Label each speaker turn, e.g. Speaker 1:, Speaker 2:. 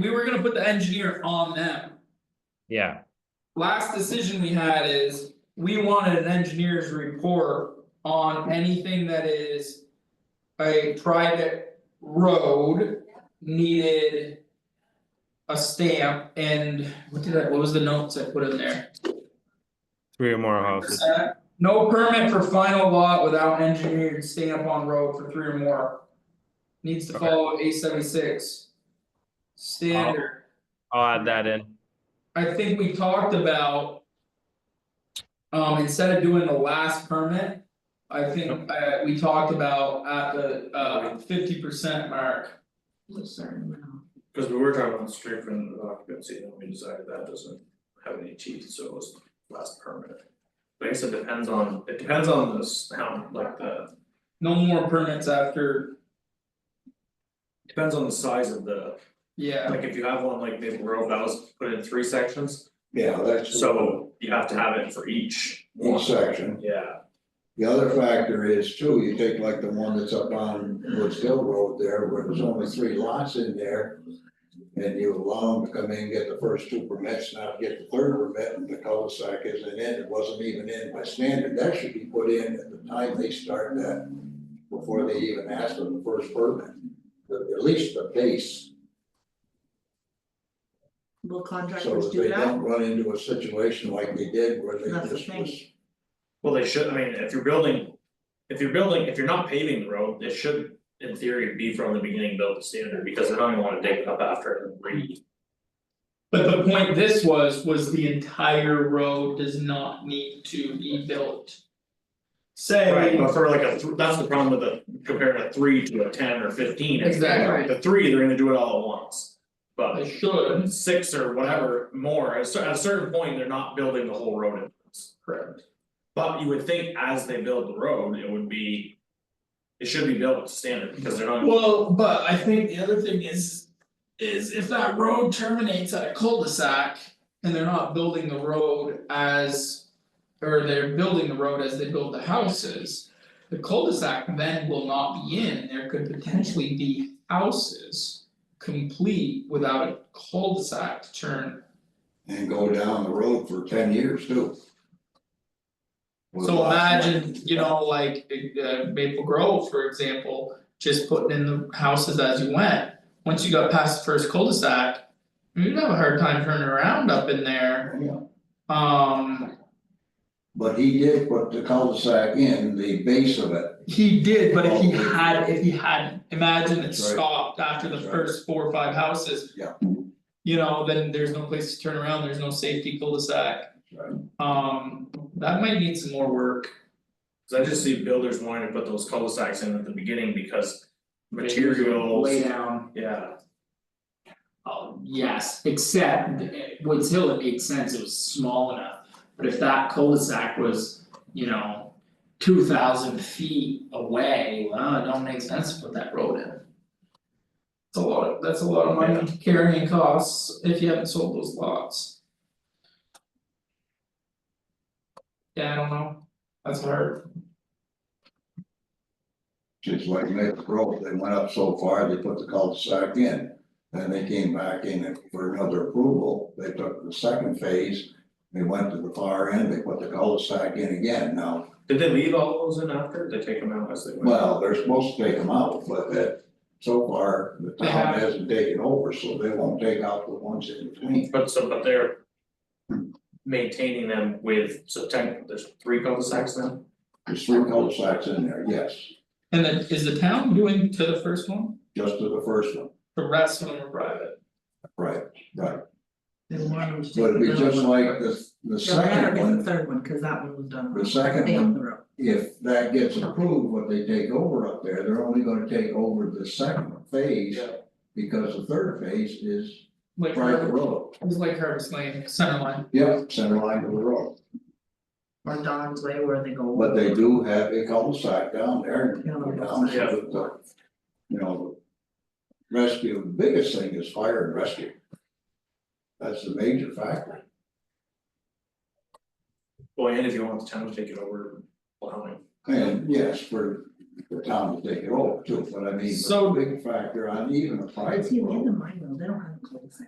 Speaker 1: We were gonna put the engineer on them.
Speaker 2: Yeah,
Speaker 1: Last decision we had is, we wanted an engineer's report on anything that is. A private road needed. A stamp and what did I, what was the notes I put in there?
Speaker 2: three or more houses,
Speaker 1: Percent. No permit for final lot without engineered stamp on road for three or more. Needs to
Speaker 2: Okay.
Speaker 1: follow A seventy six. Standard.
Speaker 2: I'll add that in,
Speaker 1: I think we talked about. Um, instead of doing the last permit. I think uh we talked about at the uh fifty percent mark.
Speaker 3: Cause we were talking about street frontage of occupancy, and we decided that doesn't have any teeth, so it was last permit. I guess it depends on, it depends on this, how, like the,
Speaker 1: No more permits after,
Speaker 3: depends on the size of the,
Speaker 1: yeah,
Speaker 3: like if you have one like Maple Grove, that was put in three sections.
Speaker 4: Yeah, that's
Speaker 3: So you have to have it for each
Speaker 4: one
Speaker 3: one,
Speaker 4: section.
Speaker 3: yeah,
Speaker 4: The other factor is too, you take like the one that's up on Woods Hill Road there, where there's only three lots in there. And you allow them to come in, get the first two permits, not get the third permit, and the cul-de-sac isn't in, it wasn't even in by standard, that should be put in at the time they start that. Before they even ask for the first permit, But at least the base,
Speaker 5: Will
Speaker 4: so
Speaker 5: contractors
Speaker 4: that
Speaker 5: do
Speaker 4: they
Speaker 5: that?
Speaker 4: don't run into a situation like they did where they
Speaker 5: That's the
Speaker 4: just
Speaker 5: thing.
Speaker 4: was.
Speaker 3: well, they should, I mean, if you're building. If you're building, if you're not paving the road, it should in theory be from the beginning built to standard, because they don't even wanna dig it up after and re.
Speaker 1: but the point this was, was the entire road does not need to be built.
Speaker 3: Right,
Speaker 1: Say,
Speaker 3: but for like a, th- that's the problem with the, comparing a three to a ten or fifteen, is
Speaker 1: Exactly.
Speaker 3: the three, they're gonna do it all at once.
Speaker 1: I
Speaker 3: But
Speaker 1: should,
Speaker 3: six or whatever more, at a cer- at a certain point, they're not building the whole road at once.
Speaker 1: correct,
Speaker 3: But you would think as they build the road, it would be. It should be built to standard, because they're not,
Speaker 1: well, but I think the other thing is. Is if that road terminates at a cul-de-sac and they're not building the road as. Or they're building the road as they build the houses. The cul-de-sac then will not be in, there could potentially be houses. Complete without a cul-de-sac to turn,
Speaker 4: And go down the road for ten years too. With
Speaker 1: so
Speaker 4: lots of-
Speaker 1: imagine, you know, like uh Maple Grove, for example, just putting in the houses as you went. Once you got past the first cul-de-sac, you'd have a hard time turning around up in there,
Speaker 4: Yeah,
Speaker 1: um,
Speaker 4: But he did put the cul-de-sac in, the base of it,
Speaker 1: he did, but if he had, if he had, imagine it
Speaker 4: That's right.
Speaker 1: stopped after the
Speaker 4: That's right.
Speaker 1: first four or five houses.
Speaker 4: Yeah.
Speaker 1: You know, then there's no place to turn around, there's no safety cul-de-sac,
Speaker 4: right?
Speaker 1: um, that might need some more work.
Speaker 3: cause I just see builders wanting to put those cul-de-sacs in at the beginning because
Speaker 6: Lay
Speaker 3: materials,
Speaker 6: down,
Speaker 3: yeah.
Speaker 1: Um,
Speaker 6: oh, yes, except eh, Woods Hill, it made sense, it was small enough. But if that cul-de-sac was, you know, two thousand feet away, well, it don't make sense to put that road in.
Speaker 1: It's a lot, of- that's a lot of money to carry and costs if you haven't sold those lots. Yeah, I don't know, that's hard,
Speaker 4: Just like Maple Grove, they went up so far, they put the cul-de-sac in. Then they came back in for another approval, they took the second phase, they went to the far end, they put the cul-de-sac in again now.
Speaker 3: Did they leave all those in after, or did they take them out as they went?
Speaker 4: Well, they're supposed to take them out, but that, so far, the
Speaker 1: They
Speaker 4: town
Speaker 1: haven't.
Speaker 4: hasn't taken over, so they won't take out the ones in between.
Speaker 3: But so, but they're. Maintaining them with, so ten, there's three cul-de-sacs now?
Speaker 4: There's three cul-de-sacs in there, yes,
Speaker 1: and then is the town doing to the first one,
Speaker 4: just to the first one,
Speaker 1: the rest of them are private?
Speaker 4: right, right.
Speaker 5: They wanted to take
Speaker 4: But it'd be
Speaker 5: the
Speaker 4: just
Speaker 5: middle
Speaker 4: like
Speaker 5: one.
Speaker 4: the, the
Speaker 5: No, I gotta
Speaker 4: second
Speaker 5: get the
Speaker 4: one,
Speaker 5: third one, cause that one was done.
Speaker 4: The second
Speaker 5: They own
Speaker 4: one.
Speaker 5: the road.
Speaker 4: if that gets approved, what they take over up there, they're only gonna take over the second phase.
Speaker 3: Yeah.
Speaker 4: Because the third phase is
Speaker 1: Like
Speaker 4: private
Speaker 1: Harvest,
Speaker 4: road,
Speaker 1: it was like Harvest Lane, Center Line,
Speaker 4: yep, center line of the road,
Speaker 5: Or Don's Way where they go.
Speaker 4: but they do have a cul-de-sac down there and
Speaker 5: Yeah.
Speaker 4: down to the- the, you know. Rescue, the biggest thing is fire and rescue. That's the major factor.
Speaker 3: Well, and if you want the town to take it over, plowing.
Speaker 4: And yes, for the town to take it over too, but I mean,
Speaker 1: So-
Speaker 4: the big factor on even a private
Speaker 5: See, in
Speaker 4: road.
Speaker 5: the mine, though, they don't have a cul-de-sac.